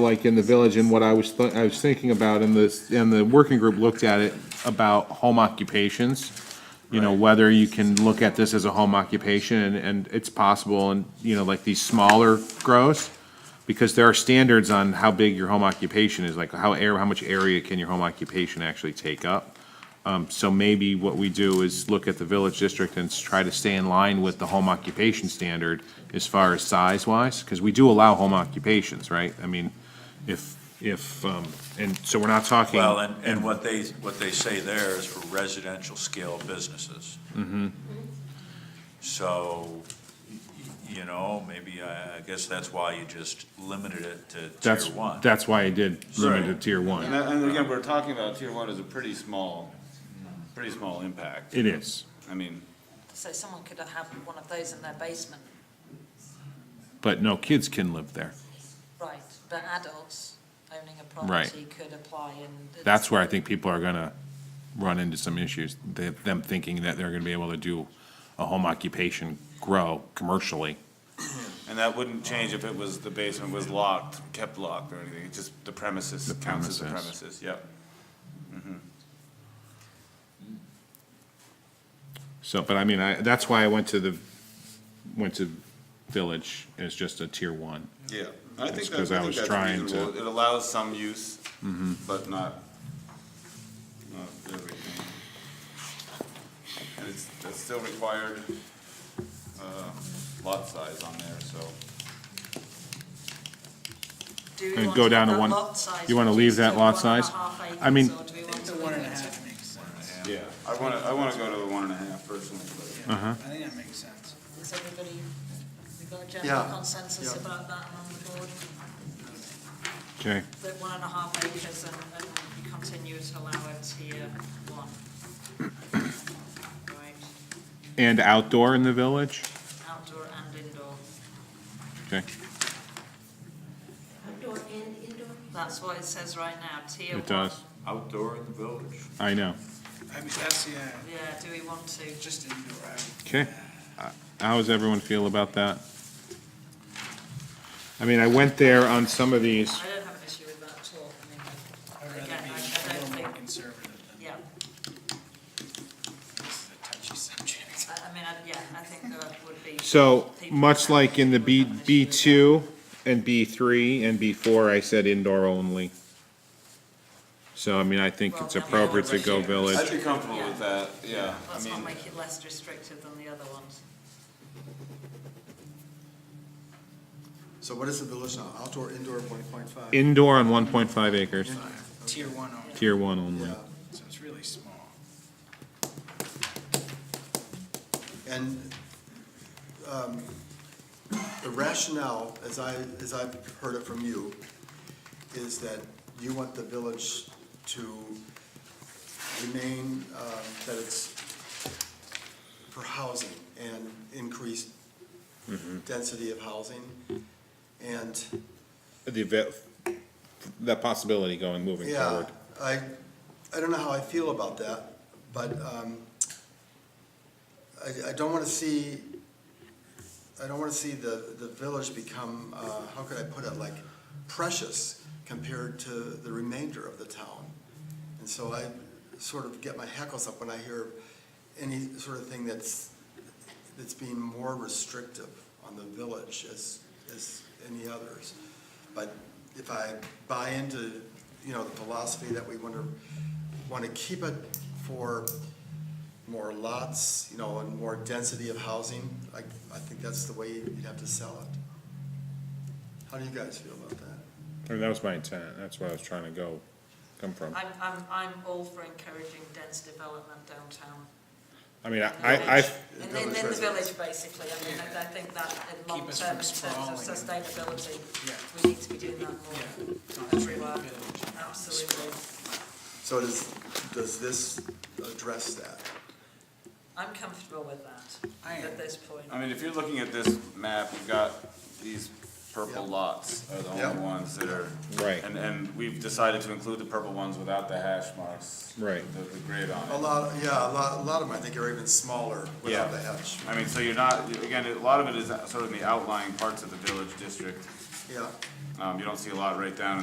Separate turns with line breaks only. like in the village and what I was, thi- I was thinking about in this, and the working group looked at it about home occupations. You know, whether you can look at this as a home occupation and, and it's possible and, you know, like these smaller grows. Because there are standards on how big your home occupation is, like how air, how much area can your home occupation actually take up? Um, so maybe what we do is look at the village district and s- try to stay in line with the home occupation standard as far as size-wise, because we do allow home occupations, right? I mean, if, if, um, and so we're not talking.
Well, and, and what they, what they say there is for residential scale businesses.
Mm-hmm.
So, y- you know, maybe, I, I guess that's why you just limited it to
That's,
tier one.
that's why I did limit it to
Right.
tier
And,
one.
that- and again, we're talking about tier one is a pretty small, pretty small impact.
It is,
I mean,
So someone could have one of those in their basement,
but no kids can live there.
right, but adults owning a
Right.
property could apply and.
That's where I think people are gonna run into some issues, they, them thinking that they're gonna be able to do a home occupation grow commercially.
and that wouldn't change if it was, the basement was locked, kept locked or anything, it's just the premises
The
counts as the
premises.
premises, yep.
So, but I mean, I, that's why I went to the, went to village as just a tier one.
Yeah, I think
That's
that's,
'cause I
I think
was
that's
trying to- Mm-hmm.
reasonable, it allows some use, but not, not everything. And it's, that's still required, uh, lot size on there, so.
Do we
And
want
go
have
down to
that
one,
lot size
you wanna leave
reduced
that
to
lot
one and a
size?
half acres,
I mean-
or do we want to leave it at-
Yeah, I wanna, I wanna go to the one and a half personally, but.
I think that makes sense.
Is everybody, we got a general consensus about that among the board,
Okay,
that one and a half acres and, and continue to allow a tier one? Right,
and outdoor in the village,
outdoor and indoor,
okay,
Outdoor and indoor?
that's what it says right now, tier one.
it does,
Outdoor in the village.
I know,
I mean, that's, yeah,
Yeah, do we want to?
just indoor, I would
okay. How does everyone feel about that? I mean, I went there on some of these,
I don't have an issue with that at all, I mean,
I'd rather
Again,
be
I- I
a
don't
little more
think-
conservative than
yeah,
this is a touchy subject.
I, I mean, I, yeah, I think that would be.
so,
people
much
would
like
have-
in the
would
B,
have an issue
B
with
two and B three and B four, I said indoor only. So, I mean, I think it's appropriate to go
I'd
village,
be comfortable with that, yeah,
that.
I
Let's not
mean,
make it less restrictive than the other ones.
So what is the village now, outdoor, indoor, one point five?
indoor on one point five acres,
Tier one only,
tier one only.
Yeah,
so it's really small.
and, um, the rationale, as I, as I've heard it from you, is that you want the village to remain, um, that it's for housing and increased density of housing, and
the event, that possibility going, moving
Yeah,
forward.
I, I don't know how I feel about that, but, um, I, I don't wanna see, I don't wanna see the, the village become, uh, how could I put it, like precious compared to the remainder of the town. And so I sort of get my hackles up when I hear any sort of thing that's, that's being more restrictive on the village as, as any others. But if I buy into, you know, the philosophy that we want to, want to keep it for more lots, you know, and more density of housing, I, I think that's the way you'd have to sell it. How do you guys feel about that?
I mean, that was my intent, that's where I was trying to go, come from.
I'm, I'm, I'm all for encouraging dense development downtown.
I mean, I,
in the
I, I,
village. In, the- in the village, basically, I mean, I I think that in long
us
term, in
from
terms of
sprawling.
sustainability,
Yeah.
we need to be doing that
Yeah.
more
Not really
everywhere,
village.
absolutely.
So does, does this address that?
I'm comfortable with that
I am.
at this point.
I mean, if you're looking at this map, you've got these purple
Yep.
lots are the
Yep.
only ones that are.
Right.
And, and we've decided to include the purple ones without the hash marks.
Right.
The, the grid on it.
A lot, yeah, a lot, a lot of them, I think, are even smaller without the hatch.
I mean, so you're not, again, a lot of it is sort of in the outlying parts of the village district.
yeah.
Um, you don't see a lot right down